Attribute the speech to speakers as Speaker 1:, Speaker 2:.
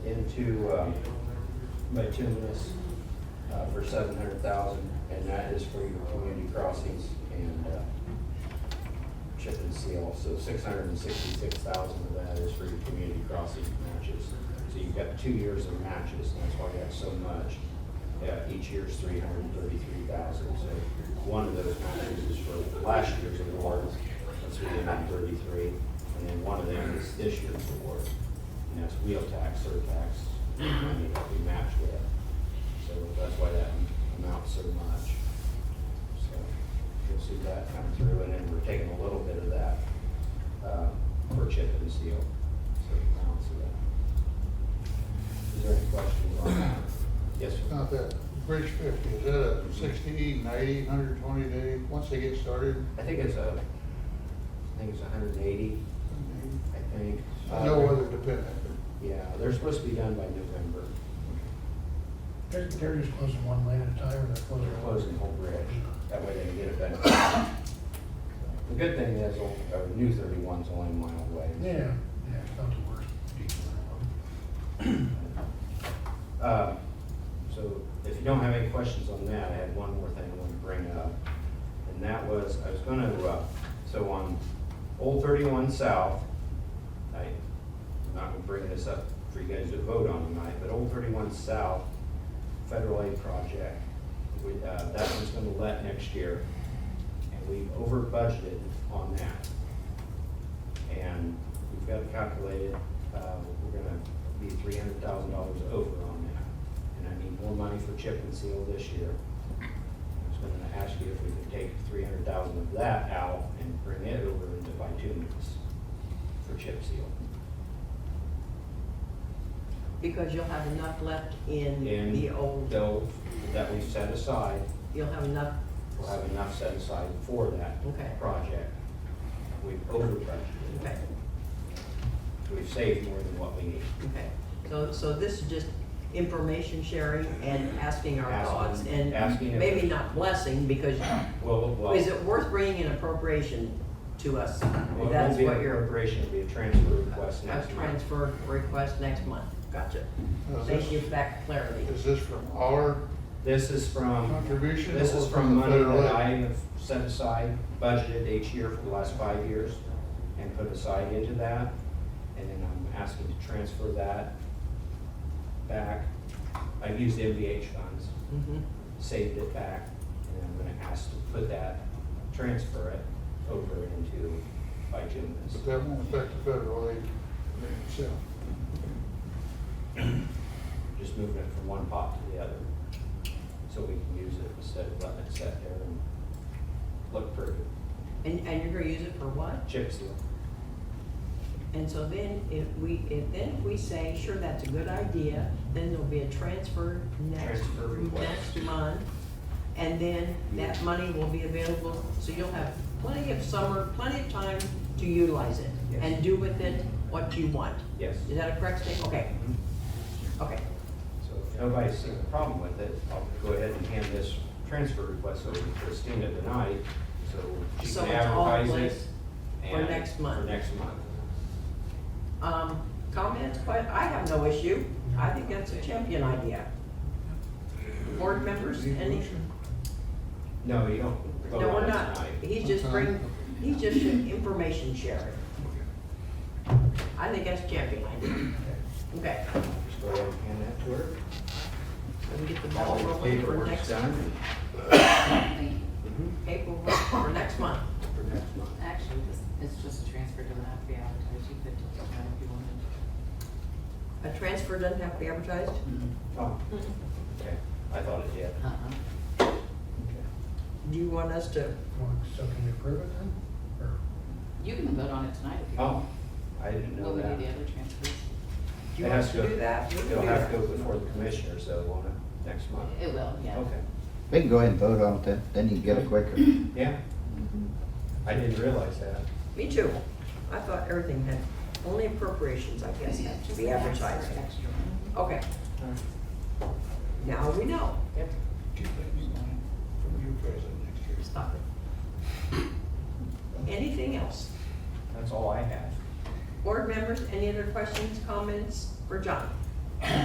Speaker 1: to, uh, Matumas, uh, for seven hundred thousand, and that is for your community crossings and, uh, chip and seal, so six hundred and sixty-six thousand of that is for your community crossing matches. So you've got two years of matches, and that's why you have so much. Yeah, each year's three hundred and thirty-three thousand, so one of those matches is for last year's award, that's three hundred and thirty-three, and then one of them is this year's award, and that's wheel tax, surtax, money that we match with. So that's why that amounts so much. So you'll see that come through, and then we're taking a little bit of that uh, for chip and seal. So the balance of that. Is there any questions on that? Yes, sir.
Speaker 2: Not that, Bridge fifty, is that a sixty, ninety, hundred twenty day, once they get started?
Speaker 1: I think it's a, I think it's hundred and eighty, I think. Uh,
Speaker 2: I know weather dependent.
Speaker 1: Yeah, they're supposed to be done by November.
Speaker 3: They're, they're just closing one lane at a time, and they're
Speaker 1: They're
Speaker 3: closing.
Speaker 1: closing the whole bridge. That way they can get it done. The good thing is, uh, New 31's only a mile away.
Speaker 3: Yeah, yeah, it's not the worst.
Speaker 1: Uh, So if you don't have any questions on that, I had one more thing I wanted to bring up. And that was, I was gonna, uh, so on Old Thirty-One South, I, I'm not gonna bring this up for you guys to vote on tonight, but Old Thirty-One South Federal Aid Project, we, uh, that one's gonna let next year. And we've over budgeted on that and we've got it calculated, uh, we're gonna be three hundred thousand dollars over on that. And I need more money for chip and seal this year. I was gonna ask you if we could take three hundred thousand of that out and bring it over into bituminous for chip seal.
Speaker 4: Because you'll have enough left in
Speaker 1: And
Speaker 4: the old,
Speaker 1: though, that we set aside,
Speaker 4: you'll have enough,
Speaker 1: we'll have enough set aside for that
Speaker 4: Okay.
Speaker 1: project. We've over budgeted.
Speaker 4: okay,
Speaker 1: We've saved more than what we need.
Speaker 4: okay. So, so this is just information sharing and asking our
Speaker 1: Asking-
Speaker 4: thoughts and
Speaker 1: asking if-
Speaker 4: maybe not blessing, because
Speaker 1: Well, well.
Speaker 4: is it worth bringing an appropriation to us?
Speaker 1: Well, it
Speaker 4: That's
Speaker 1: won't be
Speaker 4: what
Speaker 1: an
Speaker 4: you're,
Speaker 1: appropriation, it'll be a transfer request
Speaker 4: a
Speaker 1: next month.
Speaker 4: transfer request next month, gotcha.
Speaker 2: Now,
Speaker 4: Thank
Speaker 2: this-
Speaker 4: you for that clarity.
Speaker 2: Is this from our
Speaker 1: This is from,
Speaker 2: contribution?
Speaker 1: this
Speaker 2: or
Speaker 1: is from
Speaker 2: the
Speaker 1: money
Speaker 2: federal
Speaker 1: that I
Speaker 2: aid?
Speaker 1: have set aside, budgeted each year for the last five years, and put aside into that, and then I'm asking to transfer that back. I've used MVH funds,
Speaker 4: Mhm.
Speaker 1: saved it back, and I'm gonna ask to put that, transfer it over into bituminous.
Speaker 2: But that won't affect the federal aid itself.
Speaker 1: just moving it from one pot to the other. So we can use it instead of letting it sit there and look pretty.
Speaker 4: And, and you're gonna use it for what?
Speaker 1: Chip seal.
Speaker 4: And so then if we, if then if we say, sure, that's a good idea, then there'll be a transfer next,
Speaker 1: Transfer request.
Speaker 4: next month. And then that money will be available, so you'll have plenty of summer, plenty of time to utilize it
Speaker 1: Yes.
Speaker 4: and do with it what you want.
Speaker 1: Yes.
Speaker 4: Is that a correct statement? Okay,
Speaker 1: Mhm.
Speaker 4: okay.
Speaker 1: So if nobody's seen a problem with it, I'll go ahead and hand this transfer request over to Christina tonight, so she
Speaker 4: So
Speaker 1: can
Speaker 4: it's all in
Speaker 1: advertise it.
Speaker 4: place for
Speaker 1: and-
Speaker 4: next month.
Speaker 1: For next month.
Speaker 4: Um, comments, que- I have no issue. I think that's a champion idea. Board members, any?
Speaker 1: No, you don't vote
Speaker 4: No,
Speaker 1: on
Speaker 4: we're
Speaker 1: it
Speaker 4: not.
Speaker 1: tonight.
Speaker 4: He's just bring, he's just information sharing. I think that's champion idea. Okay,
Speaker 1: Just go ahead and hand that to her.
Speaker 4: so we get the
Speaker 1: All
Speaker 4: ball
Speaker 1: the
Speaker 4: rolling for
Speaker 1: paperwork's
Speaker 4: next,
Speaker 1: done.
Speaker 4: paperwork for next month.
Speaker 1: For next month.
Speaker 5: Actually, this, it's just a transfer, doesn't have to be advertised, you could just, uh, if you wanted.
Speaker 4: A transfer doesn't have to be advertised?
Speaker 1: Oh,
Speaker 4: Mm-hmm.
Speaker 1: okay. I thought it did.
Speaker 5: Uh-uh.
Speaker 1: Okay.
Speaker 4: Do you want us to,
Speaker 3: Well, So can you approve it then? Or
Speaker 5: You can vote on it tonight if you
Speaker 1: Oh,
Speaker 5: want.
Speaker 1: I didn't know
Speaker 5: What would
Speaker 1: that.
Speaker 5: be the other transfers?
Speaker 4: do you
Speaker 1: It
Speaker 4: want
Speaker 1: has
Speaker 4: us to do that? We can
Speaker 1: It'll
Speaker 4: do
Speaker 1: have to
Speaker 4: that.
Speaker 1: go before the commissioners, though, won't it, next month?
Speaker 5: It will, yeah.
Speaker 1: Okay,
Speaker 6: We can go ahead and vote on it then, then you can get it quicker.
Speaker 1: yeah.
Speaker 4: Mm-hmm.
Speaker 1: I didn't realize that.
Speaker 4: Me too. I thought everything had, only appropriations, I guess, had to be advertised. Okay, now we know.
Speaker 2: Two things, one from you president next year.
Speaker 4: Stop it. Anything else?
Speaker 1: That's all I have.
Speaker 4: Board members, any other questions, comments for John?